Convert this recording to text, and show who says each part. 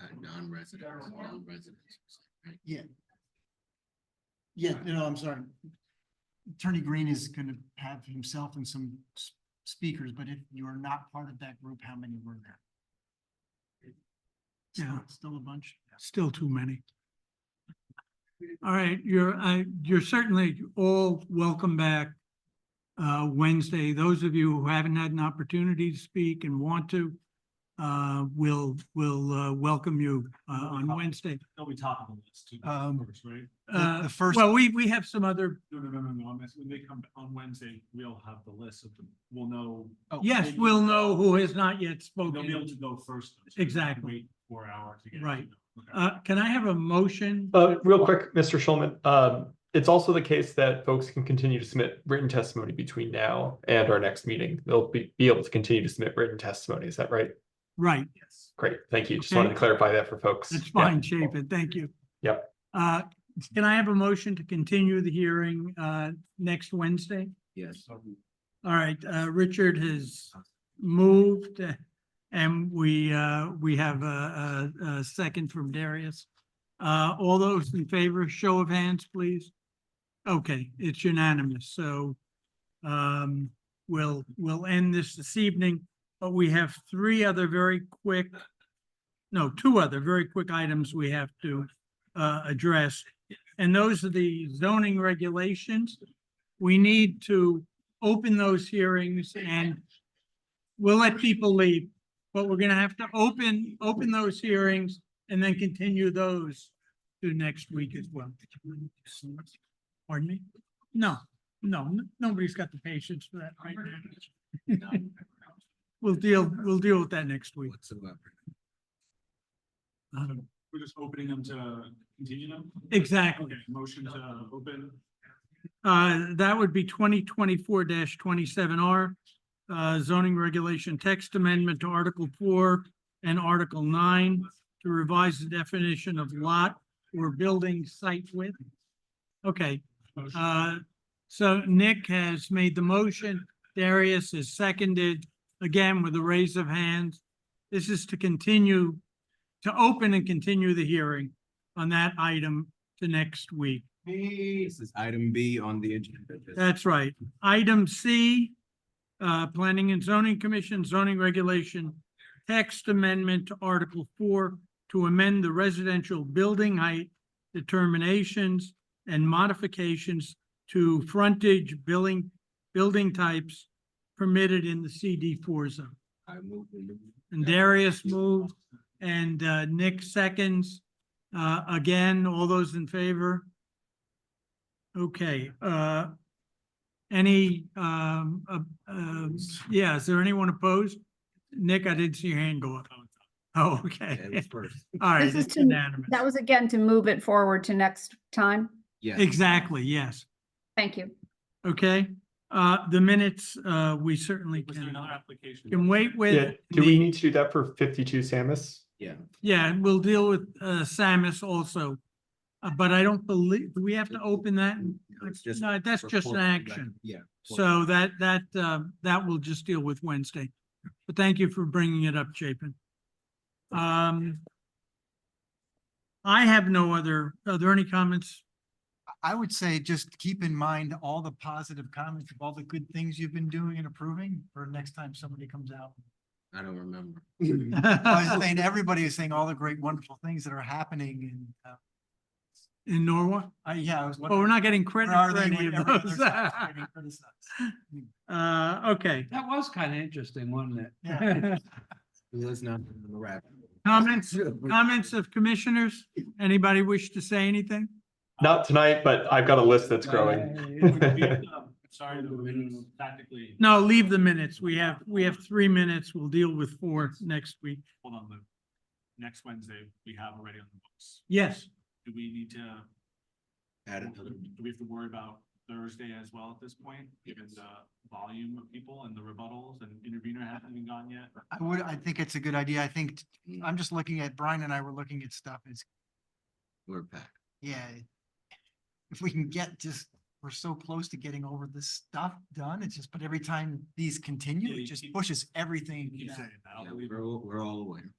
Speaker 1: uh, non-residents, non-residents. right?
Speaker 2: Yeah. Yeah, no, I'm sorry. Attorney Green is gonna have himself and some s- speakers, but if you are not part of that group, how many were there?
Speaker 3: Yeah.
Speaker 2: Still- Still a bunch?
Speaker 3: Still too many. All right, you're, I, you're certainly all welcome back uh, Wednesday. Those of you who haven't had an opportunity to speak and want to, uh, will, will, uh, welcome you, uh, on Wednesday.
Speaker 4: They'll be top of the list too.
Speaker 2: Um,
Speaker 4: of course, Right?
Speaker 2: The-
Speaker 3: Uh,
Speaker 2: the first-
Speaker 3: well, we, we have some other,
Speaker 4: No, no, no, no, no. I'm asking, when they come on Wednesday, we'll have the list of them. We'll know,
Speaker 2: Oh,
Speaker 3: yes, we'll know who has not yet
Speaker 4: they'll be able
Speaker 3: spoken.
Speaker 4: to go first. so we don't have to
Speaker 3: Exactly.
Speaker 4: Wait four hours to get.
Speaker 3: Right.
Speaker 4: Okay.
Speaker 3: Uh, can I have a motion?
Speaker 5: Uh, real quick, Mr. Schulman, um, it's also the case that folks can continue to submit written testimony between now and our next meeting. They'll be, be able to continue to submit written testimony. Is that right?
Speaker 3: Right,
Speaker 5: Great, thank you. Just wanted to clarify that for folks.
Speaker 3: That's
Speaker 5: Yeah.
Speaker 3: fine, Chapin, thank you.
Speaker 5: Yep.
Speaker 3: Uh, can I have a motion to continue the hearing, uh, next Wednesday?
Speaker 1: Yes.
Speaker 3: All right, uh, Richard has moved uh, and we, uh, we have a, a, a second from Darius. Uh, all those in favor, show of hands, please. Okay, it's unanimous, so, um, we'll, we'll end this this evening, but we have three other very quick, no, two other very quick items we have to, uh, address. And those are the zoning regulations. We need to, open those hearings and we'll let people leave, but we're gonna have to open, open those hearings and then continue those to next week as well. Pardon me? No, no, n- nobody's got the patience for that right now. We'll deal, we'll deal with that next week.
Speaker 1: Whatsoever.
Speaker 3: Um,
Speaker 4: We're just opening them to continue them?
Speaker 3: Exactly.
Speaker 4: Okay, motion to open.
Speaker 3: Uh, that would be twenty twenty-four twenty-seven R. Uh, zoning regulation text amendment to Article four and Article nine to revise the definition of lot or building site width. Okay,
Speaker 4: Motion.
Speaker 3: uh, so Nick has made the motion. Darius has seconded, again with a raise of hands. This is to continue, to open and continue the hearing on that item to next week.
Speaker 1: This is item B on the agenda.
Speaker 3: That's right. Item C, uh, Planning and Zoning Commission zoning regulation text amendment to Article four to amend the residential building height determinations and modifications to frontage billing, building types permitted in the CD four zone.
Speaker 1: I move we move.
Speaker 3: And Darius moved and, uh, Nick seconds. Uh, again, all those in favor? Okay, uh, any, um, uh, um, yeah, is there anyone opposed? Nick, I didn't see your hand go up. Oh,
Speaker 1: That was
Speaker 3: okay.
Speaker 1: first.
Speaker 3: All right,
Speaker 6: This is
Speaker 3: it's
Speaker 6: to-
Speaker 3: unanimous.
Speaker 6: That was again to move it forward to next time.
Speaker 1: Yes.
Speaker 3: Exactly, yes.
Speaker 6: Thank you.
Speaker 3: Okay, uh, the minutes, uh, we certainly
Speaker 4: Was there
Speaker 3: can,
Speaker 4: another application?
Speaker 3: can wait
Speaker 5: Yeah,
Speaker 3: with.
Speaker 5: do we
Speaker 3: the-
Speaker 5: need to do that for fifty-two Samus?
Speaker 1: Yeah.
Speaker 3: Yeah, and we'll deal with uh Samus also. Uh, But I don't believe, do we have to open that?
Speaker 1: No, it's just
Speaker 3: No, that's
Speaker 1: for
Speaker 3: just an
Speaker 1: corporate
Speaker 3: action.
Speaker 1: record. Yeah.
Speaker 3: So that, that, uh, that we'll just deal with Wednesday. But thank you for bringing it up, Chapin. Um, I have no other, are there any comments?
Speaker 2: I would say just keep in mind all the positive comments of all the good things you've been doing and approving for next time somebody comes out.
Speaker 1: I don't remember.
Speaker 2: I was saying, everybody is saying all the great wonderful things that are happening and, uh,
Speaker 3: In Norwalk?
Speaker 2: I, yeah, I was.
Speaker 3: Oh, we're not getting credit
Speaker 2: wondering, where are they
Speaker 3: for any
Speaker 2: when every
Speaker 3: of
Speaker 2: other
Speaker 3: those.
Speaker 2: side's getting criticized?
Speaker 3: Uh, okay,
Speaker 7: That was kind of interesting, wasn't it?
Speaker 2: Yeah.
Speaker 1: Let's not wrap.
Speaker 3: comments, comments of commissioners? Anybody wish to say anything?
Speaker 5: Not tonight, but I've got a list
Speaker 3: Uh,
Speaker 5: that's growing.
Speaker 4: Would we, um, Sorry, the minutes tactically,
Speaker 3: No, leave the minutes. We have, we have three minutes. We'll deal with four next week.
Speaker 4: hold on, Lou. Next Wednesday, we have already on the books.
Speaker 3: Yes,
Speaker 4: Do we need to
Speaker 1: Add another.
Speaker 4: Do we have to worry about Thursday as well at this point, given
Speaker 1: Yes.
Speaker 4: the volume of people and the rebuttals and intervener hasn't even gone yet?
Speaker 2: I would, I think it's a good idea. I think,
Speaker 4: Hmm.
Speaker 2: t- I'm just looking at, Brian and I were looking at stuff. It's,
Speaker 1: We're back.
Speaker 2: yeah. If we can get just, we're so close to getting over this stuff done. It's just, but every time these
Speaker 4: Yeah,
Speaker 2: continue, it
Speaker 4: you
Speaker 2: just
Speaker 4: keep-
Speaker 2: pushes everything.
Speaker 4: Keep
Speaker 2: back.
Speaker 4: saying that, I'll
Speaker 1: Yeah,
Speaker 4: believe it.
Speaker 1: We're, all- we're all aware.